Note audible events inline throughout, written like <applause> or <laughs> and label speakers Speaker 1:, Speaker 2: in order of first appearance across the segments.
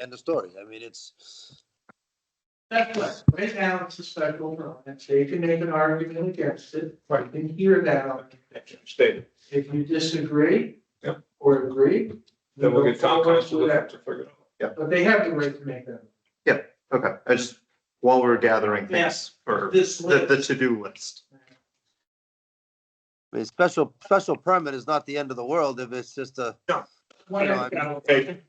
Speaker 1: end of story. I mean, it's,
Speaker 2: That's what, right now, it's a special permit, so you can make an argument against it, or you can hear that argument.
Speaker 3: Stated,
Speaker 2: If you disagree.
Speaker 3: Yep.
Speaker 2: Or agree.
Speaker 3: then we'll get town
Speaker 2: we'll go
Speaker 3: council
Speaker 2: through
Speaker 3: to
Speaker 2: that.
Speaker 3: figure it out.
Speaker 2: But they have the right to make that.
Speaker 4: Okay, I just, while we're gathering things
Speaker 2: Yes.
Speaker 4: for
Speaker 2: This
Speaker 4: the,
Speaker 2: list.
Speaker 4: the to-do list.
Speaker 1: I mean, special, special permit is not the end of the world if it's just a,
Speaker 2: One
Speaker 1: you know, I
Speaker 2: of them.
Speaker 3: Okay,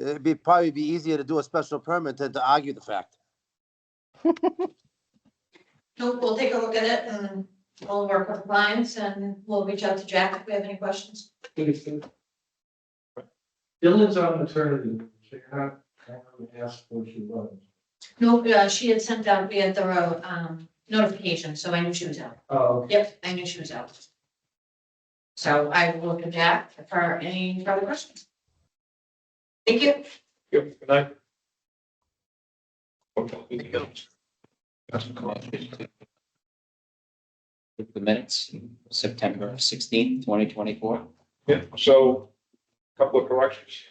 Speaker 1: it'd be, probably be easier to do a special permit than to argue the fact.
Speaker 5: We'll, we'll take a look at it and we'll work with clients and we'll reach out to Jack if we have any questions.
Speaker 2: Dylan's on maternity, leave, so you're not, I don't know, ask where she was.
Speaker 5: No, uh, she had sent out via thorough, um, notification, so I knew she was out.
Speaker 2: Oh,
Speaker 5: Yep, I knew she was out. So I will look at Jack for any further questions. Thank you.
Speaker 3: good good night. Okay.
Speaker 6: with the minutes, September sixteenth, twenty twenty-four.
Speaker 3: Yeah, so, couple of corrections.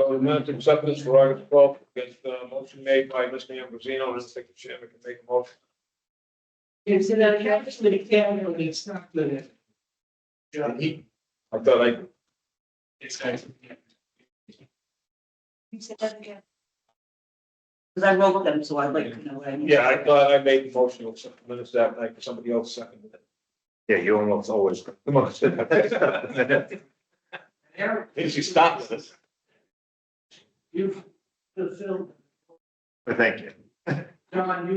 Speaker 3: So the minutes acceptance for August twelfth, gets the motion made by Mr. Ambrosino, and the second chairman can make a motion.
Speaker 2: it's in a actually camera, but it's not good. Yeah, he.
Speaker 3: I thought I,
Speaker 2: Exactly.
Speaker 7: Because I wrote them, so I'd like to know. what I need.
Speaker 3: yeah, I thought I made the motion, to accept the minutes that night, somebody else seconded it.
Speaker 4: Yeah, you almost always. <laughs>
Speaker 2: Eric,
Speaker 3: If you stop this.
Speaker 2: you've fulfilled,
Speaker 4: Thank you.
Speaker 2: John, you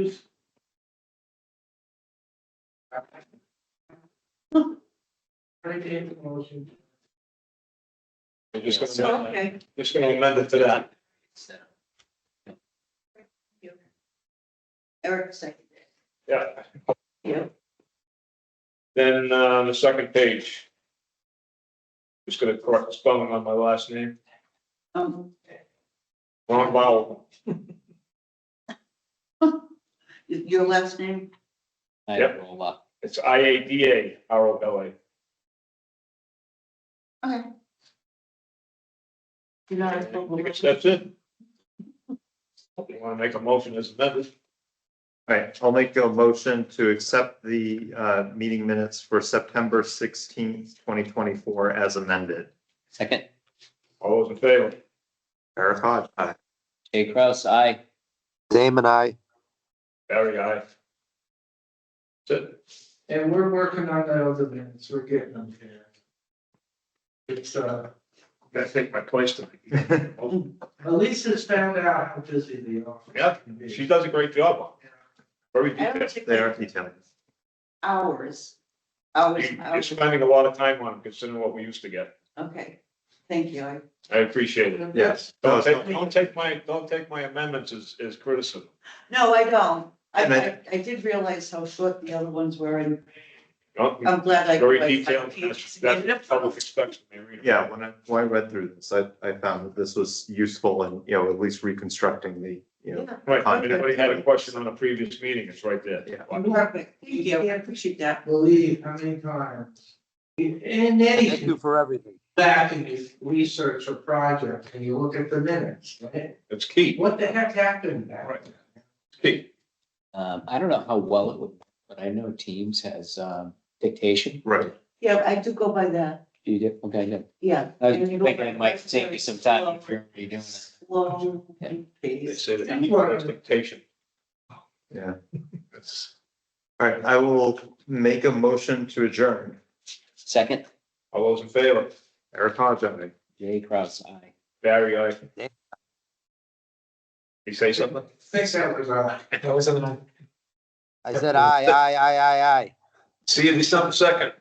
Speaker 2: I gave the motion.
Speaker 3: You're just gonna
Speaker 7: So,
Speaker 3: amend it.
Speaker 7: Okay.
Speaker 3: Just gonna amend it to that.
Speaker 7: Eric seconded.
Speaker 3: Yeah.
Speaker 7: Yeah.
Speaker 3: Then, uh, on the second page. Just gonna correct the spelling on my last name,
Speaker 7: Um,
Speaker 3: wrong vowel.
Speaker 7: y- your last name?
Speaker 6: I uh,
Speaker 3: Yep.
Speaker 6: roll up.
Speaker 3: It's I A D A R O L A.
Speaker 7: Okay. You're not.
Speaker 3: I guess that's it. You wanna make a motion as amended?
Speaker 4: All right, I'll make a motion to accept the uh, meeting minutes for September sixteenth, twenty twenty-four as amended.
Speaker 6: Second,
Speaker 3: All those in favor?
Speaker 4: Eric Hodge, aye.
Speaker 6: Jay Kraus, I.
Speaker 1: Damon, I.
Speaker 3: Barry, aye. That's it.
Speaker 2: And we're working on the other minutes, we're getting them here. It's, uh,
Speaker 3: Gotta take my place tonight.
Speaker 2: Elisa's found out how busy the office.
Speaker 3: Yeah,
Speaker 2: can be.
Speaker 3: <laughs> She does a great job. on it. Very
Speaker 7: I
Speaker 3: detailed.
Speaker 7: don't think
Speaker 4: They are detailing.
Speaker 7: hours, hours, and
Speaker 3: You're
Speaker 7: hours.
Speaker 3: spending a lot of time on it considering what we used to get.
Speaker 7: Okay, thank you. I-
Speaker 3: I appreciate it.
Speaker 4: Yes.
Speaker 3: Don't take, don't take my, don't take my amendments as, as criticism.
Speaker 7: No, I don't. I,
Speaker 4: And I-
Speaker 7: I, I did realize how short the other ones were and
Speaker 3: Don't-
Speaker 7: I'm glad I.
Speaker 3: Very
Speaker 7: I- I-
Speaker 3: detailed, that's, that's what public expects me reading.
Speaker 4: Yeah, when I, when I read through this, I, I found that this was useful and, you know, at least reconstructing the, you know.
Speaker 3: Right, if anybody had a question on a previous meeting, it's right there.
Speaker 4: Yeah.
Speaker 7: Perfect. Thank you. I appreciate that.
Speaker 2: Believe how many times. In
Speaker 1: Thank you
Speaker 2: any
Speaker 1: for everything.
Speaker 2: back in your research or project, and you look at the minutes, right?
Speaker 3: It's key,
Speaker 2: what the heck happened back?
Speaker 3: Right. it's key.
Speaker 6: Um, I don't know how well it would, but I know Teams has, um, dictation.
Speaker 4: Right.
Speaker 7: Yeah, I do go by that.
Speaker 6: You did, okay, good.
Speaker 7: Yeah.
Speaker 6: I was thinking it might take you some time if you're already doing it.
Speaker 7: Slow
Speaker 6: Yeah.
Speaker 3: They
Speaker 7: pace.
Speaker 3: say that equal expectation.
Speaker 4: Yeah.
Speaker 3: That's-
Speaker 4: All right, I will make a motion to adjourn.
Speaker 6: Second,
Speaker 3: All those in favor?
Speaker 4: Eric Hodge, aye.
Speaker 6: Jay Kraus, I.
Speaker 3: Barry, aye. You say something?
Speaker 2: Six hours on.
Speaker 1: <laughs> I said, aye, aye, aye, aye, aye.
Speaker 3: See you in December second.